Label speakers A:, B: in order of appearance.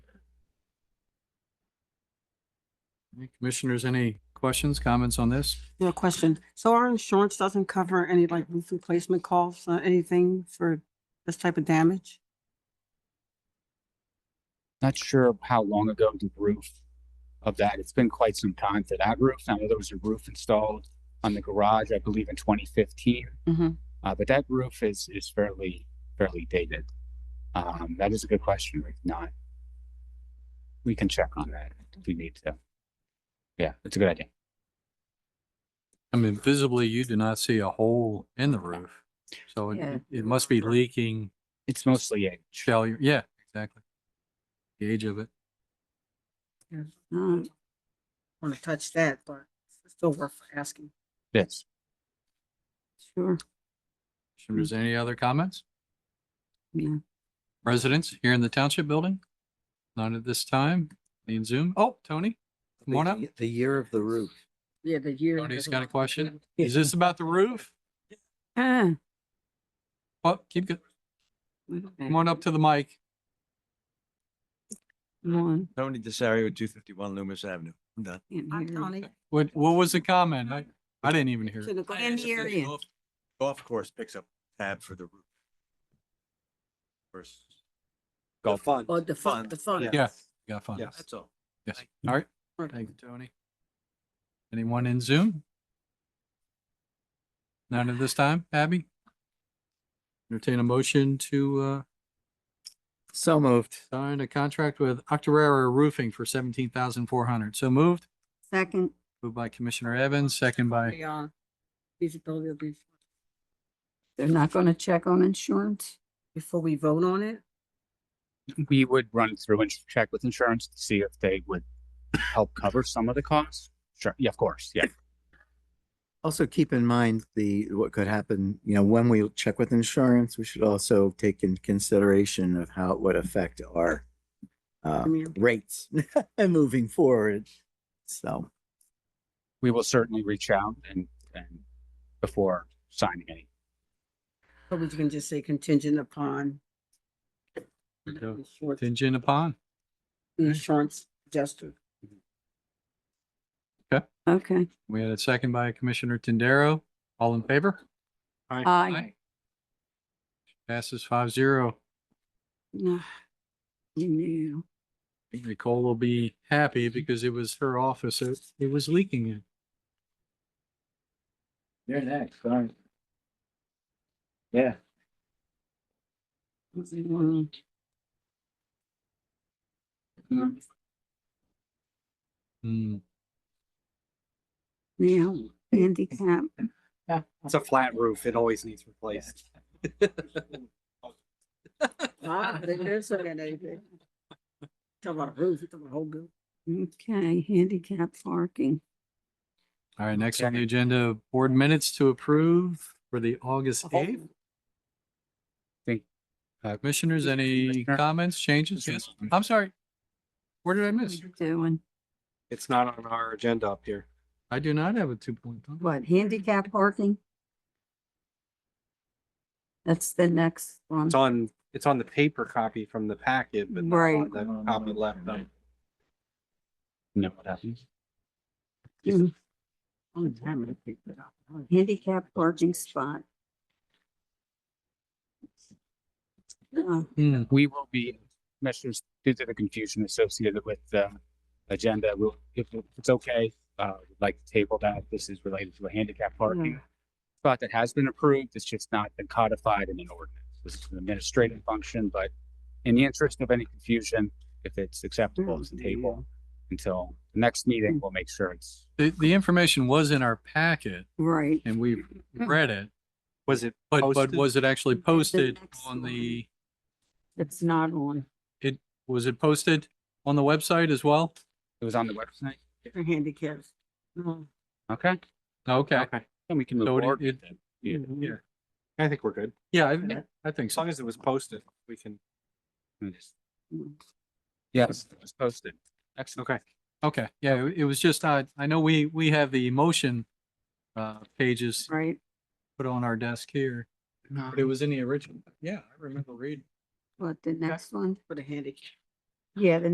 A: Commissioners, any questions, comments on this?
B: Yeah, question. So our insurance doesn't cover any like roof replacement costs, uh, anything for this type of damage?
C: Not sure how long ago the roof of that, it's been quite some time for that roof. Now, there was a roof installed on the garage, I believe in twenty fifteen.
D: Mm-hmm.
B: Mhm.
C: Uh, but that roof is, is fairly, fairly dated. Um, that is a good question, Rick. Not. We can check on that if we need to. Yeah, that's a good idea.
A: I mean, visibly, you do not see a hole in the roof. So it-
D: Yeah.
A: it, it must be leaking
C: It's mostly age.
A: failure. Yeah, exactly. The age of it.
B: Want to Mm. touch that, but it's still worth asking.
C: Yes.
D: Sure.
A: Commissioners, any other comments?
D: Yeah.
A: Residents here in the township building? None at this time. Need Zoom? Oh, Tony? Come on up.
E: The- The year of the roof.
B: Yeah, the year.
A: Tony's got a question. Is this about the roof?
D: Ah.
A: Oh, keep, go-
D: wait a
A: come
D: minute.
A: on up to the mic.
D: Come on,
E: Tony Desario, two fifty-one Loomis Avenue. I'm done.
D: can't
B: I'm
D: hear you.
B: Tony.
A: What, what was the comment? I, I didn't even hear.
D: To the grand area.
E: Golf course picks up tab for the roof. Versus.
C: Golf.
E: fund.
D: Or Oh, the fun,
E: fund,
D: the fun.
A: Yeah, got fun.
E: Yes, that's all.
A: Yes. All right. Thank you, Tony. Anyone in Zoom? None at this time. Abby? Entertain a motion to, uh,
E: So moved.
A: sign a contract with Octorara Roofing for seventeen thousand four hundred. So moved.
D: Second,
A: Moved by Commissioner Evans, second by,
B: The, uh, feasibility of these-
D: they're not gonna check on insurance?
B: Before we vote on it,
C: We would run through and check with insurance to see if they would help cover some of the costs. Sure. Yeah, of course. Yeah.
F: Also keep in mind the, what could happen, you know, when we check with insurance, we should also take into consideration of how it would affect our uh,
B: Premium.
F: rates moving forward. So,
C: we will certainly reach out and, and before signing any.
B: but we can just say contingent upon
A: go.
B: insurance-
A: contingent upon.
B: insurance adjuster.
D: Okay,
A: We had a second by Commissioner Tendero. All in favor?
D: aye.
A: Passes five zero.
D: No. No.
A: Nicole will be happy because it was her office. It, it was leaking it.
F: you're next, sorry. Yeah.
A: Hmm.
D: Now, handicap,
G: It's a flat roof. It always needs replaced.
B: Ah, they did say that, they did. Talk about roof, talk about whole building.
D: okay, handicap parking.
A: All right, next on the agenda, board minutes to approve for the August eighth.
C: Thank- uh,
A: Commissioners, any
C: Commissioner?
A: comments, changes? Yes,
C: Commissioner.
A: I'm sorry. Where did I
D: What are
A: miss?
D: you Doing,
G: It's not on our agenda up here.
A: I do not have a two point.
D: what, handicap parking? That's the next one.
G: It's on, it's on the paper copy from the packet, but not on
D: Right.
G: the copy left on.
C: Know what happens?
F: Oh,
D: Handicap parking spot. Uh,
A: Hmm,
C: We will be, measures due to the confusion associated with the agenda, we'll, if it's okay, uh, we'd like to table that. This is related to a handicap parking spot that has been approved. It's just not been codified in an ordinance. This is an administrative function, but in the interest of any confusion, if it's acceptable, it's a table until the next meeting, we'll make sure it's
A: The, the information was in our packet
D: Right,
A: and we read it,
G: Was it?
A: but, but
G: Posted?
A: was it actually posted
D: next
A: on
D: one.
A: the,
D: it's not on
A: was it posted on the website as well?
C: It was on the website?
B: For handicaps. No.
C: Okay.
A: Okay,
G: Okay.
C: Then we can move
A: So it-
C: forward.
A: it-
C: with it. Yeah.
G: I think we're good.
A: yeah, I, I think
G: As
A: so.
G: long as it was posted, we can.
C: And just- Yes, it was posted. Excellent.
G: Okay.
A: Okay, yeah, it- it was just, I, I know we, we have the motion uh, pages
D: right?
A: put on our desk here,
D: No.
A: but it was in the original. Yeah, I remember reading.
D: What, the next one?
B: For the handicap.
D: Yeah, the